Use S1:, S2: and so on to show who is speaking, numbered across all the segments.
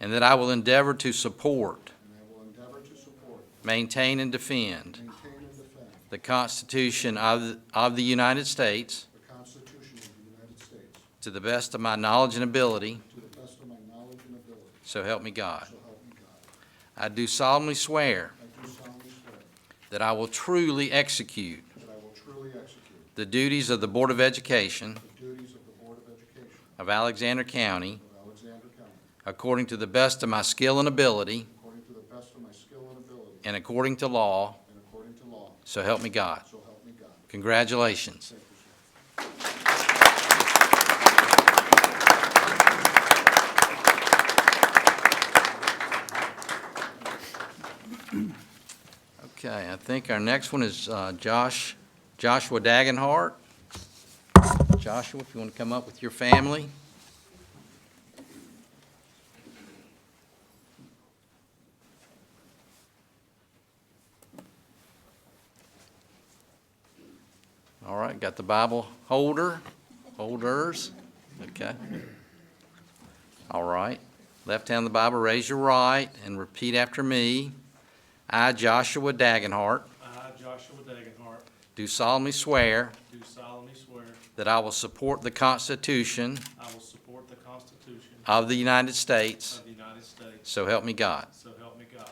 S1: and that I will endeavor to support,
S2: and I will endeavor to support,
S1: maintain, and defend
S2: maintain, and defend
S1: the Constitution of of the United States
S2: the Constitution of the United States
S1: to the best of my knowledge and ability,
S2: to the best of my knowledge and ability,
S1: so help me God.
S2: so help me God.
S1: I do solemnly swear
S2: I do solemnly swear
S1: that I will truly execute
S2: that I will truly execute
S1: the duties of the Board of Education
S2: the duties of the Board of Education
S1: of Alexander County
S2: of Alexander County
S1: according to the best of my skill and ability
S2: according to the best of my skill and ability
S1: and according to law,
S2: and according to law,
S1: so help me God.
S2: so help me God.
S1: Congratulations.
S2: Thank you, sir.
S1: Okay, I think our next one is uh, Josh, Joshua Dagenhart. Joshua, if you want to come up with your family. All right, got the Bible holder, holders, okay. All right, left hand on the Bible, raise your right, and repeat after me. I, Joshua Dagenhart,
S3: I, Joshua Dagenhart,
S1: do solemnly swear
S3: do solemnly swear
S1: that I will support the Constitution
S3: I will support the Constitution
S1: of the United States,
S3: of the United States,
S1: so help me God.
S3: so help me God.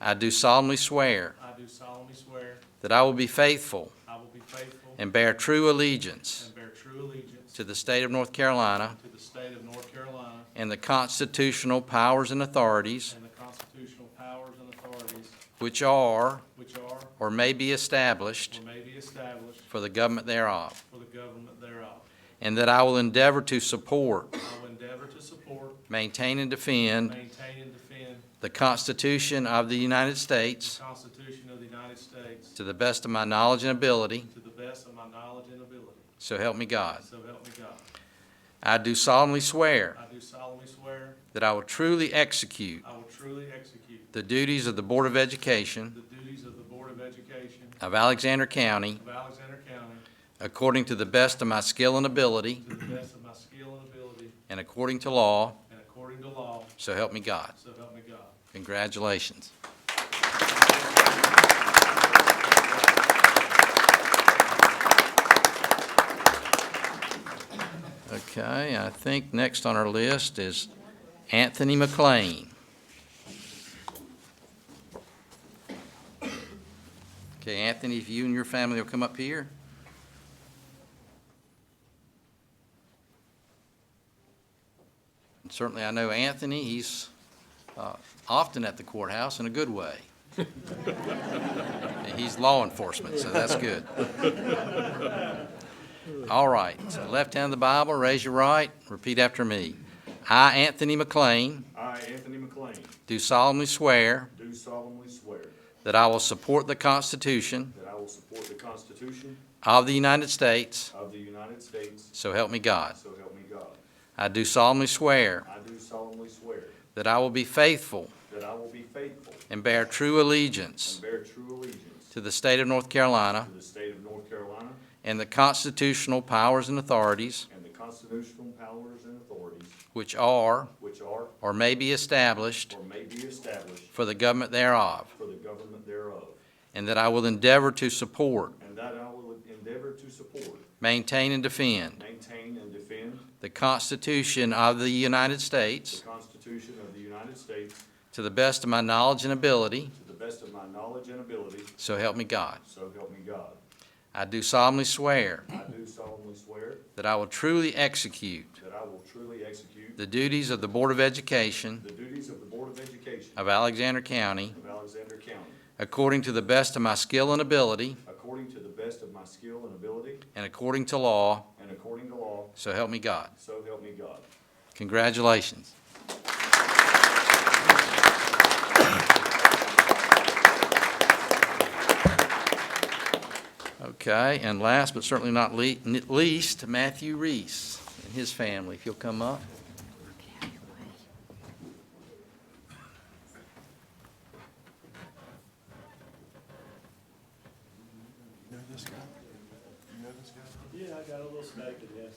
S1: I do solemnly swear
S3: I do solemnly swear
S1: that I will be faithful
S3: I will be faithful
S1: and bear true allegiance
S3: and bear true allegiance
S1: to the state of North Carolina
S3: to the state of North Carolina
S1: and the constitutional powers and authorities
S3: and the constitutional powers and authorities
S1: which are
S3: which are
S1: or may be established
S3: or may be established
S1: for the government thereof,
S3: for the government thereof.
S1: and that I will endeavor to support,
S3: I will endeavor to support,
S1: maintain, and defend
S3: maintain, and defend
S1: the Constitution of the United
S3: the
S1: States
S3: Constitution of the United States
S1: To the best of my knowledge and ability,
S3: to the best of my knowledge and ability,
S1: so help me God.
S3: so help me God.
S1: I do solemnly swear
S3: I do solemnly swear
S1: that I will truly execute
S3: I will truly execute
S1: the duties of the Board of Education
S3: The duties of the Board of Education
S1: of Alexander County
S3: of Alexander County
S1: according to the best of my skill and ability
S3: to the best of my skill and ability
S1: and according to law,
S3: and according to law,
S1: so help me God.
S3: so help me God.
S1: Congratulations. Okay, I think next on our list is Anthony McLean. Okay, Anthony, if you and your family will come up here. And Certainly, I know Anthony, he's uh, often at the courthouse in a good way. And He's law enforcement, so that's good. All right, so left hand of the Bible, raise your right, repeat after me. I, Anthony McLean,
S4: I, Anthony McLean,
S1: do solemnly swear
S4: do solemnly swear
S1: that I will support the Constitution
S4: that I will support the Constitution
S1: of the United States,
S4: of the United States,
S1: so help me God.
S4: so help me God.
S1: I do solemnly swear
S4: I do solemnly swear
S1: that I will be faithful
S4: that I will be faithful
S1: and bear true allegiance
S4: and bear true allegiance
S1: to the state of North Carolina
S4: to the state of North Carolina
S1: and the constitutional powers and authorities
S4: and the constitutional powers and authorities
S1: which are
S4: which are
S1: or may be established
S4: or may be established
S1: for the government thereof,
S4: for the government thereof,
S1: and that I will endeavor to support,
S4: and that I will endeavor to support,
S1: maintain, and defend
S4: maintain, and defend
S1: the Constitution of the United
S4: the
S1: States
S4: Constitution of the United States
S1: to the best of my knowledge and ability,
S4: to the best of my knowledge and ability,
S1: so help me God.
S4: so help me God.
S1: I do solemnly swear
S4: I do solemnly swear
S1: that I will truly execute
S4: That I will truly execute
S1: the duties of the Board of Education
S4: the duties of the Board of Education
S1: of Alexander County
S4: of Alexander County
S1: according to the best of my skill and ability
S4: according to the best of my skill and ability
S1: and according to law,
S4: and according to law,
S1: so help me God.
S4: so help me God.
S1: Congratulations. Okay, and last but certainly not le- n- least, Matthew Reese and his family, if you'll come up.
S3: Yeah, I got a little stake in this.